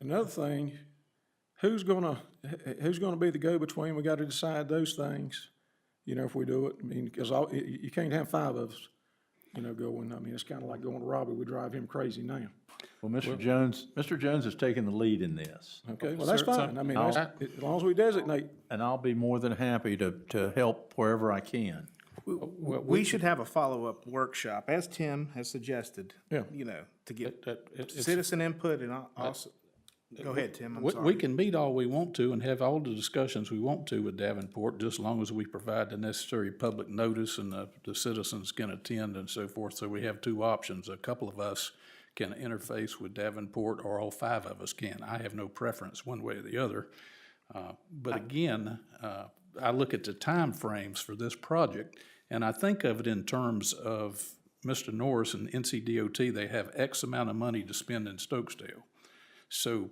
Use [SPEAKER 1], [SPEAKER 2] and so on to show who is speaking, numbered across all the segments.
[SPEAKER 1] Another thing, who's gonna, wh- who's gonna be the go-between? We gotta decide those things, you know, if we do it. I mean, because all, you, you can't have five of us, you know, going. I mean, it's kinda like going to Robbie. We drive him crazy now.
[SPEAKER 2] Well, Mr. Jones, Mr. Jones has taken the lead in this,
[SPEAKER 1] Okay, well, that's
[SPEAKER 3] Sir, so-
[SPEAKER 1] fine. I mean, that's- as long as we designate,
[SPEAKER 2] and I'll be more than happy to, to help wherever I can.
[SPEAKER 4] We should have a follow-up workshop, as Tim has suggested.
[SPEAKER 1] Yeah.
[SPEAKER 4] You know, to get
[SPEAKER 3] That- it- it's-
[SPEAKER 4] citizen input and al- also, go ahead, Tim, I'm
[SPEAKER 3] We, we
[SPEAKER 4] sorry.
[SPEAKER 3] can meet all we want to and have all the discussions we want to with Davenport, just as long as we provide the necessary public notice and the, the citizens can attend and so forth. So we have two options. A couple of us can interface with Davenport or all five of us can. I have no preference one way or the other. Uh, But again, uh, I look at the timeframes for this project, and I think of it in terms of Mr. Norris and NCDOT, they have X amount of money to spend in Stokesdale. So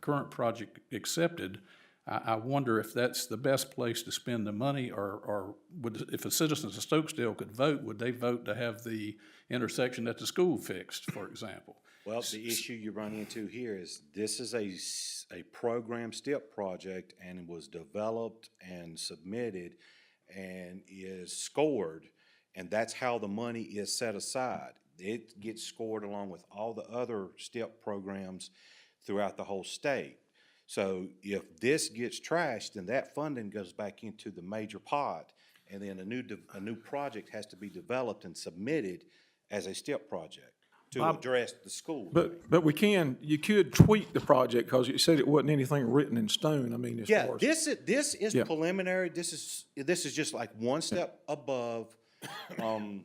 [SPEAKER 3] current project accepted, I, I wonder if that's the best place to spend the money, or, or would, if the citizens of Stokesdale could vote, would they vote to have the intersection at the school fixed, for example?
[SPEAKER 5] Well, the issue you run into here is this is a, s- a program step project and it was developed and submitted and is scored. And that's how the money is set aside. It gets scored along with all the other step programs throughout the whole state. So if this gets trashed, then that funding goes back into the major pot. And then a new, de- a new project has to be developed and submitted as a step project to address the school.
[SPEAKER 1] but, but we can, you could tweak the project, because you said it wasn't anything written in stone, I mean, as
[SPEAKER 5] Yeah,
[SPEAKER 1] far as.
[SPEAKER 5] this is, this is
[SPEAKER 1] Yeah.
[SPEAKER 5] preliminary, this is, this is just like one step above, um,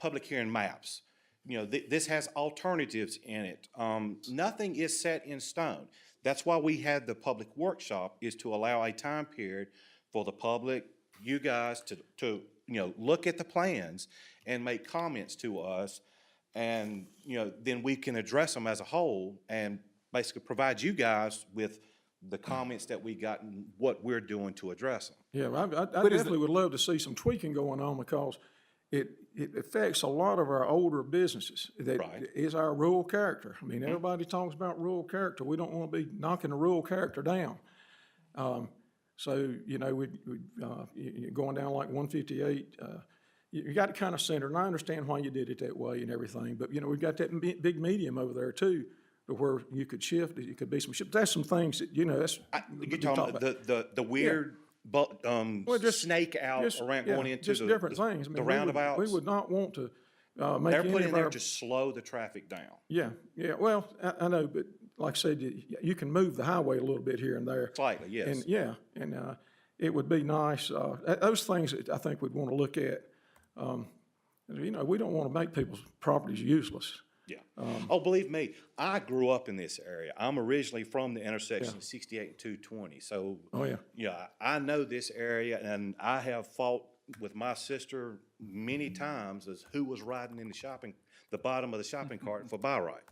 [SPEAKER 5] public hearing maps. You know, thi- this has alternatives in it, um, nothing is set in stone. That's why we had the public workshop, is to allow a time period for the public, you guys to, to, you know, look at the plans and make comments to us. And, you know, then we can address them as a whole and basically provide you guys with the
[SPEAKER 1] Mm.
[SPEAKER 5] comments that we got and what we're doing to address them.
[SPEAKER 1] Yeah, I, I- I definitely would love to see some tweaking going on because it, it affects a lot of our older businesses. That
[SPEAKER 5] Right.
[SPEAKER 1] is our rural character. I mean, everybody talks about rural character. We don't want to be knocking the rural character down. Um, So, you know, we, we, uh, you- you're going down like one fifty-eight, uh, you, you got it kind of centered. And I understand why you did it that way and everything, but you know, we've got that me- big medium over there too, to where you could shift, it could be some shift. That's some things that, you know, that's. we
[SPEAKER 5] You're
[SPEAKER 1] could
[SPEAKER 5] talking
[SPEAKER 1] talk
[SPEAKER 5] about the, the, the weird bu- um,
[SPEAKER 1] just-
[SPEAKER 5] snake out
[SPEAKER 1] Just-
[SPEAKER 5] around
[SPEAKER 1] yeah,
[SPEAKER 5] going into
[SPEAKER 1] just
[SPEAKER 5] the.
[SPEAKER 1] different
[SPEAKER 5] the-
[SPEAKER 1] things. I mean, we
[SPEAKER 5] The
[SPEAKER 1] would-
[SPEAKER 5] roundabouts.
[SPEAKER 1] We would not want to, uh, make
[SPEAKER 5] They're
[SPEAKER 1] any
[SPEAKER 5] put in
[SPEAKER 1] of
[SPEAKER 5] there
[SPEAKER 1] our.
[SPEAKER 5] to slow the traffic down.
[SPEAKER 1] Yeah, yeah, well, I, I know, but like I said, you, you can move the highway a little bit here and there.
[SPEAKER 5] Slightly, yes.
[SPEAKER 1] And, yeah, and, uh, it would be nice, uh, th- those things that I think we'd want to look at. Um, you know, we don't want to make people's properties useless.
[SPEAKER 5] Yeah.
[SPEAKER 1] um,
[SPEAKER 5] Oh, believe me, I grew up in this area. I'm originally from the intersection of 68 and 220. So,
[SPEAKER 1] Oh, yeah.
[SPEAKER 5] yeah, I know this area and I have fought with my sister many times as who was riding in the shopping, the bottom of the shopping cart for buy right.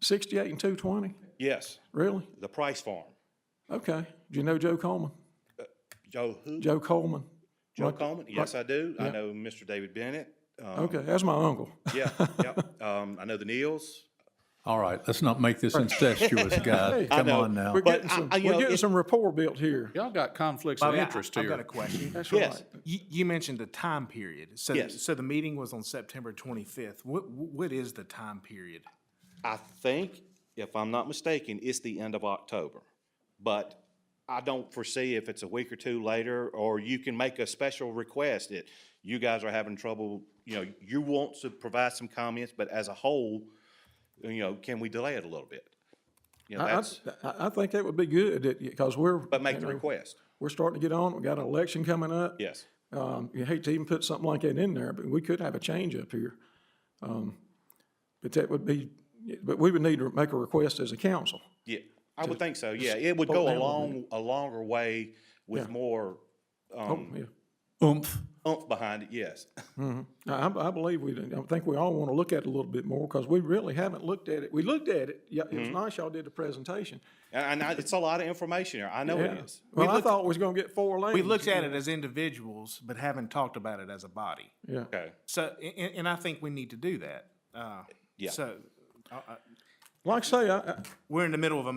[SPEAKER 1] Sixty-eight and two twenty,
[SPEAKER 5] Yes,
[SPEAKER 1] really?
[SPEAKER 5] the Price Farm.
[SPEAKER 1] Okay. Do you know Joe Coleman?
[SPEAKER 5] Joe who?
[SPEAKER 1] Joe Coleman?
[SPEAKER 5] Joe Coleman? Yes, I do. I know Mr. David Bennett. Um,
[SPEAKER 1] Okay, that's my uncle.
[SPEAKER 5] Yeah, yeah. Um, I know the Neils.
[SPEAKER 2] All right, let's not make this incestuous, guys. Come
[SPEAKER 5] know.
[SPEAKER 2] on now.
[SPEAKER 1] We're getting
[SPEAKER 5] But I-
[SPEAKER 1] some,
[SPEAKER 5] I-
[SPEAKER 1] we're
[SPEAKER 5] you know,
[SPEAKER 1] getting
[SPEAKER 5] it-
[SPEAKER 1] some rapport built here.
[SPEAKER 3] Y'all got conflicts of
[SPEAKER 4] Bobby, I-
[SPEAKER 3] interest
[SPEAKER 4] Oh, I've got a
[SPEAKER 3] here.
[SPEAKER 4] question.
[SPEAKER 1] That's
[SPEAKER 5] Yes.
[SPEAKER 1] right.
[SPEAKER 4] You, you mentioned the time period. So,
[SPEAKER 5] Yes.
[SPEAKER 4] so the meeting was on September twenty-fifth. What, what is the time period?
[SPEAKER 5] I think, if I'm not mistaken, it's the end of October. But I don't foresee if it's a week or two later, or you can make a special request that you guys are having trouble, you know, you want to provide some comments, but as a whole, you know, can we delay it a little bit? You know,
[SPEAKER 1] I,
[SPEAKER 5] that's,
[SPEAKER 1] I, I think that would be good, because we're.
[SPEAKER 5] but make
[SPEAKER 1] you
[SPEAKER 5] the
[SPEAKER 1] know,
[SPEAKER 5] request,
[SPEAKER 1] We're starting to get on, we got an election coming up.
[SPEAKER 5] yes.
[SPEAKER 1] Um, you hate to even put something like that in there, but we could have a change up here. Um, but that would be, but we would need to make a request as a council.
[SPEAKER 5] Yeah, I would think so, yeah. It would go a long, a longer way with more Um,
[SPEAKER 1] Oh, yeah.
[SPEAKER 2] Oomph.
[SPEAKER 5] oomph behind it, yes.
[SPEAKER 1] I, I- I believe we, I think we all want to look at it a little bit more, because we really haven't looked at it. We looked at it, yeah, it was
[SPEAKER 5] Mm-hmm.
[SPEAKER 1] nice y'all did the presentation.
[SPEAKER 5] And I, it's a lot of information there, I know it is.
[SPEAKER 1] Well, I thought we was gonna get four lanes.
[SPEAKER 4] We looked at it as individuals, but haven't talked about it as a body.
[SPEAKER 1] Yeah.
[SPEAKER 5] Okay.
[SPEAKER 4] So, a- a- and, I think we need to do that. Uh,
[SPEAKER 5] Yeah.
[SPEAKER 4] So, I, I,
[SPEAKER 6] Like I say, I, I,
[SPEAKER 1] We're in the middle of a